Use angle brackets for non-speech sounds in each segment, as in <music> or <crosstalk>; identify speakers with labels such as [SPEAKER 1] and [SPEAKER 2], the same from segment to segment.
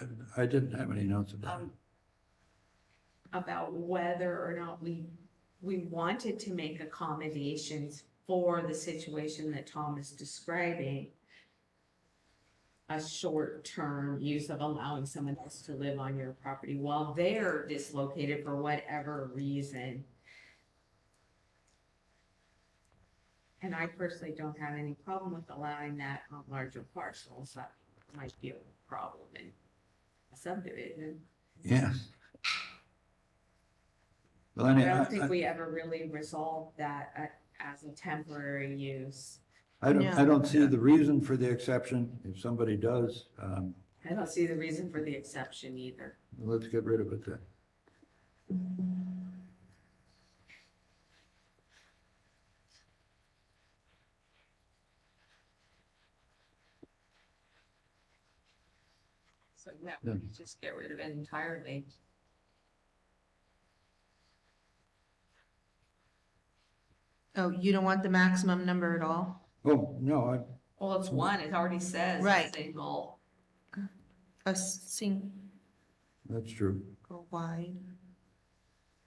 [SPEAKER 1] I- I didn't have any notes about it.
[SPEAKER 2] um, about whether or not we, we wanted to make accommodations for the situation that Tom is describing. A short-term use of allowing someone else to live on your property while they're dislocated for whatever reason. And I personally don't have any problem with allowing that on larger parcels. That might be a problem in a subdivision.
[SPEAKER 1] Yeah. Well, any-
[SPEAKER 2] I
[SPEAKER 1] I,
[SPEAKER 2] don't think
[SPEAKER 1] I-
[SPEAKER 2] we ever really resolved that uh, as a temporary use.
[SPEAKER 1] I don't, I
[SPEAKER 3] No.
[SPEAKER 1] don't see the reason for the exception. If somebody does, um,
[SPEAKER 2] I don't see the reason for the exception either.
[SPEAKER 1] let's get rid of it then.
[SPEAKER 2] So no, we
[SPEAKER 1] Yeah.
[SPEAKER 2] could just get rid of it entirely.
[SPEAKER 3] Oh, you don't want the maximum number at all?
[SPEAKER 1] Oh, no, I,
[SPEAKER 2] Well, it's one, it already says.
[SPEAKER 3] Right.
[SPEAKER 2] Single.
[SPEAKER 3] A single
[SPEAKER 1] that's true.
[SPEAKER 3] wide?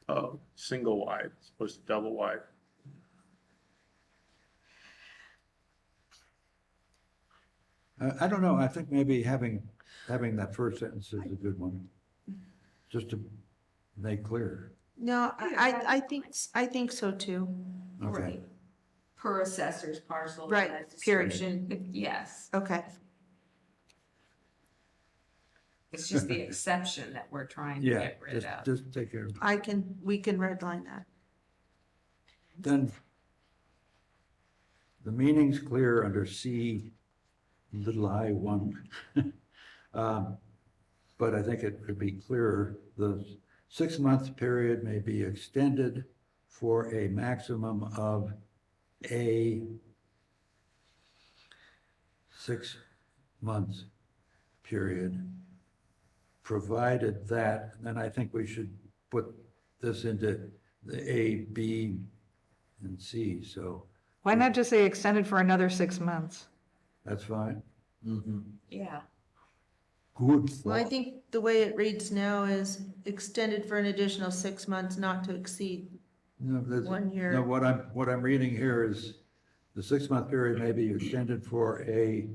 [SPEAKER 4] Oh, single wide, as opposed to double wide.
[SPEAKER 1] I, I don't know. I think maybe having, having that first sentence is a good one. Just to make clear.
[SPEAKER 3] No, I, I, I think, I think so too.
[SPEAKER 1] Okay.
[SPEAKER 2] Right. Per assessor's parcel.
[SPEAKER 3] Right,
[SPEAKER 2] that
[SPEAKER 3] period.
[SPEAKER 2] description. Yes,
[SPEAKER 3] Okay,
[SPEAKER 2] it's just the exception that we're trying to
[SPEAKER 1] Yeah,
[SPEAKER 2] get rid
[SPEAKER 1] just,
[SPEAKER 2] of.
[SPEAKER 1] just take care of it.
[SPEAKER 3] I can, we can redline that.
[SPEAKER 1] Then the meaning's clear under C, little I one. <laughs> Um, But I think it could be clearer. The six-month period may be extended for a maximum of a six-month period, provided that, then I think we should put this into the A, B, and C, so
[SPEAKER 5] Why not just say extended for another six months?
[SPEAKER 1] that's fine.
[SPEAKER 2] Yeah,
[SPEAKER 1] Good
[SPEAKER 3] Well, I
[SPEAKER 1] thought.
[SPEAKER 3] think the way it reads now is extended for an additional six months not to exceed.
[SPEAKER 1] No, that's-
[SPEAKER 3] one year.
[SPEAKER 1] No, what I'm, what I'm reading here is the six-month period may be extended for a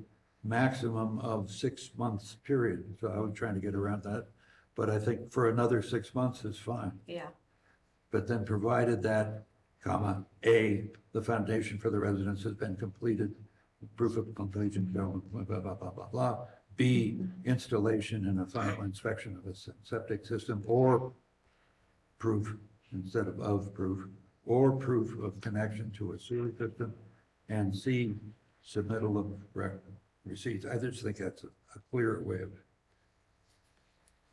[SPEAKER 1] maximum of six months period. So I was trying to get around that, but I think for another six months is fine.
[SPEAKER 2] yeah.
[SPEAKER 1] But then provided that, comma, A, the foundation for the residence has been completed, proof of completion, blah, blah, blah, blah, blah, blah. B, installation and a final inspection of a se- septic system or proof instead of of proof, or proof of connection to a sewer system. And C, submittal of rec- receipts. I just think that's a a clear way of,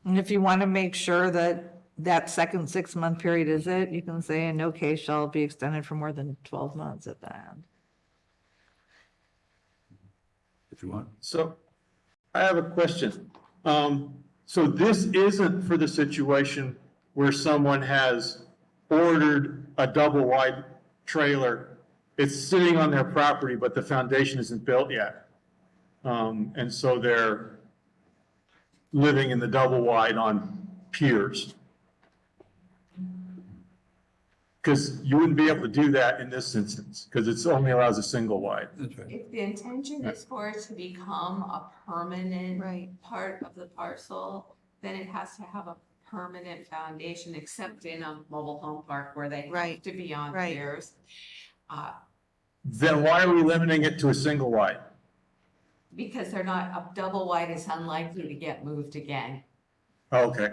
[SPEAKER 5] And if you want to make sure that that second six-month period is it, you can say in no case shall it be extended for more than twelve months at the end.
[SPEAKER 1] if you want.
[SPEAKER 4] So I have a question. Um, so this isn't for the situation where someone has ordered a double wide trailer. It's sitting on their property, but the foundation isn't built yet. Um, and so they're living in the double wide on piers. Cause you wouldn't be able to do that in this instance, cause it's only allows a single wide.
[SPEAKER 1] That's right.
[SPEAKER 2] If the intention is for it to become a permanent
[SPEAKER 3] Right.
[SPEAKER 2] part of the parcel, then it has to have a permanent foundation, except in a mobile home park where they have
[SPEAKER 3] Right,
[SPEAKER 2] to be on
[SPEAKER 3] right.
[SPEAKER 2] piers. uh,
[SPEAKER 4] Then why are we limiting it to a single wide?
[SPEAKER 2] Because they're not, a double wide is unlikely to get moved again.
[SPEAKER 4] Okay.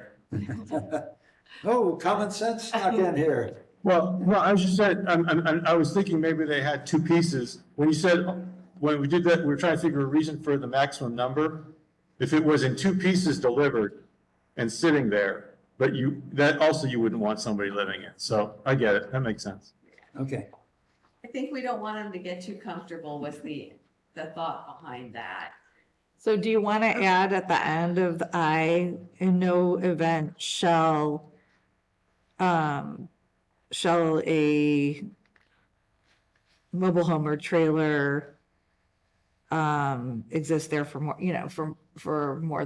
[SPEAKER 1] Oh, common sense snuck in here.
[SPEAKER 4] Well, no, I was just said, I'm, I'm, I'm- I was thinking maybe they had two pieces. When you said, when we did that, we were trying to figure a reason for the maximum number. If it was in two pieces delivered and sitting there, but you, that also you wouldn't want somebody living in. So I get it. That makes sense.
[SPEAKER 1] Okay.
[SPEAKER 2] I think we don't want them to get too comfortable with the, the thought behind that.
[SPEAKER 5] So do you want to add at the end of the I, in no event shall, um, shall a mobile home or trailer, um, exist there for more, you know, for, for more